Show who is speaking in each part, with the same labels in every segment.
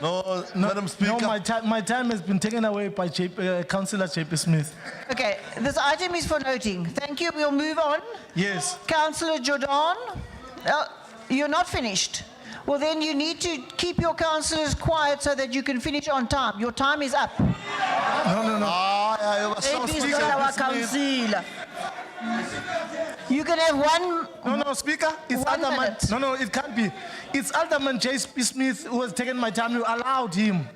Speaker 1: No, Madam Speaker.
Speaker 2: No, my time, my time has been taken away by J- uh, Councillor JP Smith.
Speaker 3: Okay, this item is for noting. Thank you, we'll move on.
Speaker 2: Yes.
Speaker 3: Councillor Jordan, uh, you're not finished. Well, then you need to keep your councillors quiet so that you can finish on time. Your time is up.
Speaker 2: No, no, no.
Speaker 1: Ah, yeah, yeah, so
Speaker 4: Maybe it's
Speaker 1: Speaker,
Speaker 4: not our
Speaker 1: Miss Smith.
Speaker 4: councillor.
Speaker 3: You can have one,
Speaker 2: No, no, Speaker. It's
Speaker 3: One
Speaker 2: Alderman.
Speaker 3: minute.
Speaker 2: No, no, it can't be. It's Alderman JP Smith who has taken my time. You allowed him.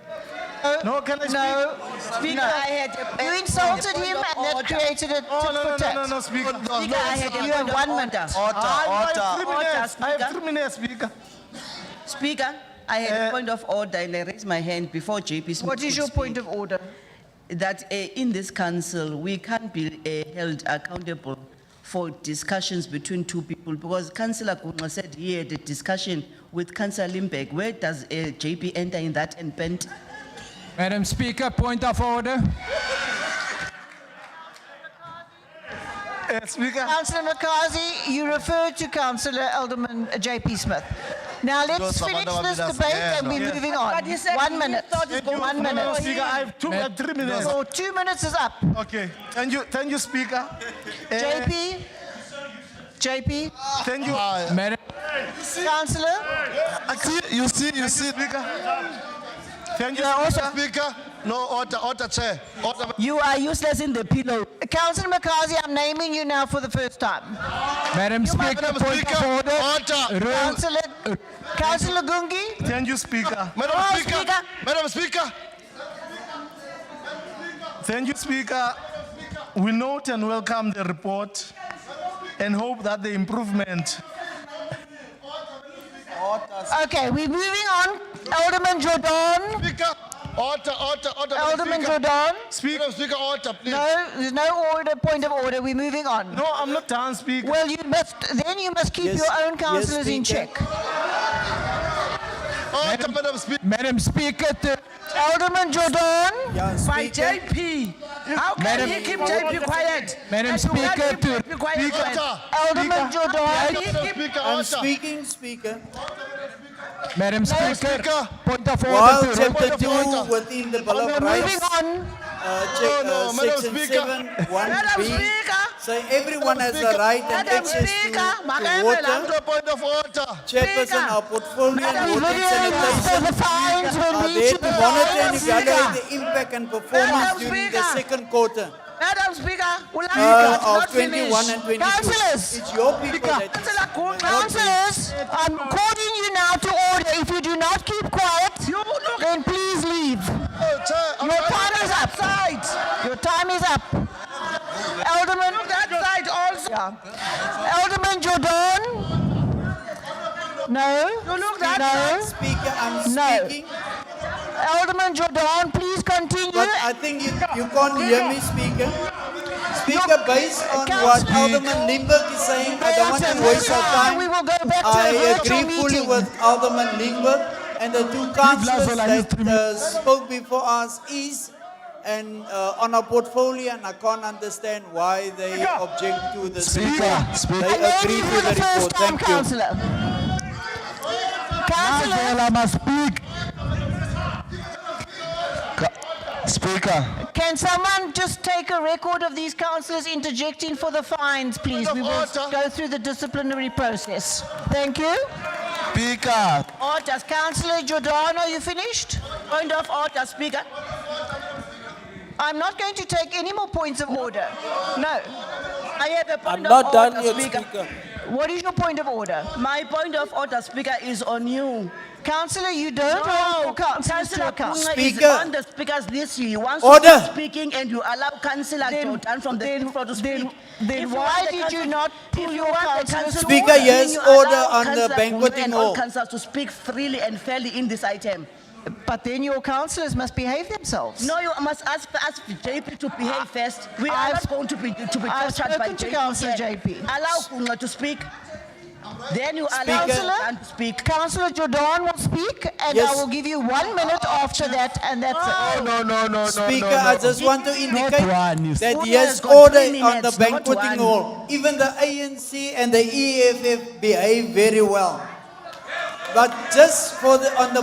Speaker 2: No, can I speak?
Speaker 3: no.
Speaker 4: Speaker,
Speaker 3: No.
Speaker 4: I had a-
Speaker 3: You
Speaker 4: a-
Speaker 3: insulted
Speaker 4: a
Speaker 3: him
Speaker 4: point of
Speaker 3: and that
Speaker 4: order.
Speaker 3: created a tit
Speaker 2: Oh, no, no,
Speaker 3: for
Speaker 2: no, no,
Speaker 3: tat.
Speaker 2: no, Speaker.
Speaker 1: No,
Speaker 4: Speaker, I had a
Speaker 3: You have
Speaker 4: point of
Speaker 3: one
Speaker 4: order.
Speaker 3: minute.
Speaker 2: Oh, I
Speaker 1: Order,
Speaker 2: have
Speaker 1: order.
Speaker 2: three
Speaker 4: order,
Speaker 2: minutes. I have
Speaker 4: Speaker.
Speaker 2: three minutes, Speaker.
Speaker 4: Speaker, I had a point of order and I raised my hand before JP Smith
Speaker 3: What is
Speaker 4: could
Speaker 3: your
Speaker 4: speak.
Speaker 3: point of order?
Speaker 4: that uh, in this council, we can't be uh, held accountable for discussions between two people, because councillor Kunwa said he had a discussion with councillor Limbeck. Where does uh, JP enter in that and bend?
Speaker 5: Madam Speaker, point of order.
Speaker 2: Uh, speaker.
Speaker 3: Councillor McCarthy, you referred to Councillor Alderman J.P. Smith. Now let's
Speaker 1: Those are
Speaker 3: finish
Speaker 1: Madam
Speaker 3: this
Speaker 1: Abidas.
Speaker 3: debate
Speaker 1: Yeah,
Speaker 3: and
Speaker 1: no.
Speaker 3: we're moving on.
Speaker 4: But he said
Speaker 3: One
Speaker 4: he
Speaker 3: minute.
Speaker 4: thought it was
Speaker 3: One
Speaker 2: No, no, no,
Speaker 3: minute.
Speaker 2: Speaker. I have two, I have three minutes.
Speaker 3: Your two minutes is up.
Speaker 2: Okay. Thank you, thank you, Speaker. Uh,
Speaker 3: JP? JP?
Speaker 2: Thank you.
Speaker 1: Ah, yeah.
Speaker 5: Madam,
Speaker 3: Councillor?
Speaker 1: I see- You see, you see.
Speaker 2: Thank you.
Speaker 1: You are also Speaker. No, order, order, Chair. Order.
Speaker 4: You are useless in the pillow.
Speaker 3: Councillor McCarthy, I'm naming you now for the first time.
Speaker 5: Madam Speaker,
Speaker 1: Madam
Speaker 5: point
Speaker 1: Speaker,
Speaker 5: of order.
Speaker 1: order.
Speaker 5: Rule,
Speaker 3: Councillor, Councillor Gungi?
Speaker 2: Thank you, Speaker.
Speaker 1: Madam
Speaker 3: Oh,
Speaker 1: Speaker.
Speaker 3: Speaker.
Speaker 1: Madam Speaker.
Speaker 2: Thank you, Speaker. We note and welcome the report and hope that the improvement.
Speaker 3: Okay, we're moving on. Alderman Jordan?
Speaker 1: Speaker. Order, order, order. Madam
Speaker 3: Alderman
Speaker 1: Speaker.
Speaker 3: Jordan?
Speaker 1: Madam Speaker, order, please.
Speaker 3: No, there's no order, point of order. We're moving on.
Speaker 2: No, I'm not done, Speaker.
Speaker 3: Well, you must, then you must keep
Speaker 6: Yes,
Speaker 3: your own
Speaker 6: yes,
Speaker 3: councillors in
Speaker 6: Speaker.
Speaker 3: check.
Speaker 1: Order, Madam Speaker.
Speaker 5: Madam Speaker, th-
Speaker 3: Alderman Jordan?
Speaker 6: Yeah,
Speaker 4: By
Speaker 6: Speaker.
Speaker 4: JP, how can
Speaker 5: Madam-
Speaker 4: he keep JP quiet?
Speaker 5: Madam
Speaker 4: And you can't
Speaker 5: Speaker,
Speaker 4: keep
Speaker 5: to-
Speaker 4: JP quiet when-
Speaker 1: Order.
Speaker 3: Alderman Jordan?
Speaker 1: Madam Speaker,
Speaker 6: I'm
Speaker 1: order.
Speaker 6: speaking, Speaker.
Speaker 5: Madam Speaker,
Speaker 1: Speaker.
Speaker 5: point of
Speaker 6: While
Speaker 5: order. to rule.
Speaker 6: chapter
Speaker 1: point of
Speaker 6: two
Speaker 1: order.
Speaker 6: within the Bill
Speaker 1: Madam,
Speaker 6: of
Speaker 3: Moving
Speaker 6: Rights,
Speaker 3: on.
Speaker 6: uh,
Speaker 1: No,
Speaker 6: check,
Speaker 1: no,
Speaker 6: uh,
Speaker 1: Madam
Speaker 6: section
Speaker 1: Speaker.
Speaker 6: seven, one
Speaker 4: Madam
Speaker 6: B.
Speaker 4: Speaker,
Speaker 6: So everyone has the
Speaker 1: Speaker.
Speaker 6: right and
Speaker 4: Madam
Speaker 6: access to-
Speaker 4: Speaker,
Speaker 6: to
Speaker 4: Makayela,
Speaker 6: water.
Speaker 1: Order, point of order.
Speaker 6: Chairperson, our portfolio
Speaker 4: Madam
Speaker 6: and water
Speaker 3: Video list of
Speaker 6: sanitation
Speaker 3: the fines will
Speaker 6: are
Speaker 3: be
Speaker 6: there
Speaker 3: issued
Speaker 6: to
Speaker 3: by
Speaker 6: monitor and
Speaker 3: Madam
Speaker 6: evaluate
Speaker 3: Speaker.
Speaker 6: the impact and performance
Speaker 4: Madam
Speaker 6: during the
Speaker 4: Speaker.
Speaker 6: second quarter
Speaker 4: Madam Speaker, we'll
Speaker 6: uh,
Speaker 4: have to not
Speaker 6: of 21 and
Speaker 4: finish.
Speaker 6: 22.
Speaker 3: Councillors.
Speaker 6: It's your people that is.
Speaker 4: Councillor Kunwa,
Speaker 3: Councillors, I'm calling you now to order. If you do not keep quiet,
Speaker 4: you look
Speaker 3: then please leave.
Speaker 1: Oh, Chair. I'm
Speaker 3: Your
Speaker 1: order.
Speaker 3: time is up. Your time is up. Alderman,
Speaker 4: that side also.
Speaker 3: Alderman Jordan? No?
Speaker 4: You look that
Speaker 3: No?
Speaker 6: Speaker, I'm
Speaker 3: No.
Speaker 6: speaking,
Speaker 3: Alderman Jordan, please continue.
Speaker 6: but I think you, you can't hear me, Speaker. Speaker, based on what
Speaker 3: Councillor-
Speaker 6: Alderman Limburg is saying, I don't want to waste our time.
Speaker 3: We will go back to
Speaker 6: I
Speaker 3: the virtual
Speaker 6: agree fully
Speaker 3: meeting.
Speaker 6: with Alderman Lingberg and the two councillors
Speaker 5: Lazola, he's
Speaker 6: that uh, spoke before us is and uh, on our portfolio, and I can't understand why they object to the
Speaker 5: Speaker,
Speaker 6: They
Speaker 3: I learned
Speaker 6: agree
Speaker 3: you
Speaker 6: to
Speaker 3: for
Speaker 6: the
Speaker 3: the
Speaker 6: report.
Speaker 3: first time,
Speaker 6: Thank you.
Speaker 3: councillor. Councillor,
Speaker 5: Madam, I must speak. Speaker.
Speaker 3: can someone just take a record of these councillors interjecting for the fines, please?
Speaker 1: Point
Speaker 3: We
Speaker 1: of
Speaker 3: will
Speaker 1: order.
Speaker 3: go through the disciplinary process. Thank you.
Speaker 5: Speaker.
Speaker 3: Orders, councillor Jordan, are you finished?
Speaker 4: Point of order, Speaker.
Speaker 3: I'm not going to take any more points of order. No.
Speaker 4: I have a
Speaker 6: I'm
Speaker 4: point
Speaker 6: not
Speaker 4: of
Speaker 6: done
Speaker 4: order,
Speaker 6: yet,
Speaker 4: Speaker.
Speaker 6: Speaker.
Speaker 3: What is your point of order?
Speaker 4: My point of order, Speaker, is on you.
Speaker 3: Councillor, you don't hold your councillors to
Speaker 4: Councillor
Speaker 3: account.
Speaker 4: mm, Kunga is
Speaker 6: Speaker.
Speaker 4: on the speakers list. He wants
Speaker 6: Order.
Speaker 4: to keep speaking and you allow Councillor
Speaker 3: Then-
Speaker 4: Jordan from the
Speaker 3: then-
Speaker 4: floor to speak.
Speaker 3: then- then
Speaker 4: If you
Speaker 3: why
Speaker 4: want the
Speaker 3: did
Speaker 4: council-
Speaker 3: you not
Speaker 4: if
Speaker 3: pull
Speaker 4: you
Speaker 3: your
Speaker 4: want the
Speaker 3: councillors
Speaker 4: council to
Speaker 3: to
Speaker 6: Speaker,
Speaker 4: order,
Speaker 6: yes,
Speaker 4: then you
Speaker 6: order
Speaker 4: allow
Speaker 6: on the
Speaker 4: Councillor Kunga
Speaker 6: banqueting
Speaker 4: and all
Speaker 6: hall.
Speaker 4: councillors to speak freely and fairly in this item.
Speaker 3: But then your councillors must behave themselves.
Speaker 4: No, you must ask, ask JP to behave first. We are
Speaker 3: I've-
Speaker 4: not going to be, to be
Speaker 3: I've
Speaker 4: tortured by
Speaker 3: spoken to
Speaker 4: JP.
Speaker 3: Councillor
Speaker 4: here.
Speaker 3: JP.
Speaker 4: Allow Kunga to speak. Then you allow
Speaker 6: Speaker.
Speaker 4: Councillor to speak.
Speaker 3: Councillor Jordan will speak, and I
Speaker 6: Yes.
Speaker 3: will give you one minute after that, and that's it.
Speaker 5: No, no, no, no,
Speaker 6: Speaker, I
Speaker 5: no, no.
Speaker 6: just want to indicate
Speaker 5: one, you
Speaker 6: that
Speaker 4: Order
Speaker 6: he
Speaker 4: has
Speaker 6: has
Speaker 4: got
Speaker 6: order
Speaker 4: three
Speaker 6: on the
Speaker 4: minutes, not one.
Speaker 6: banqueting hall. Even the E ANC and the EFF behave very well. But just for the, on the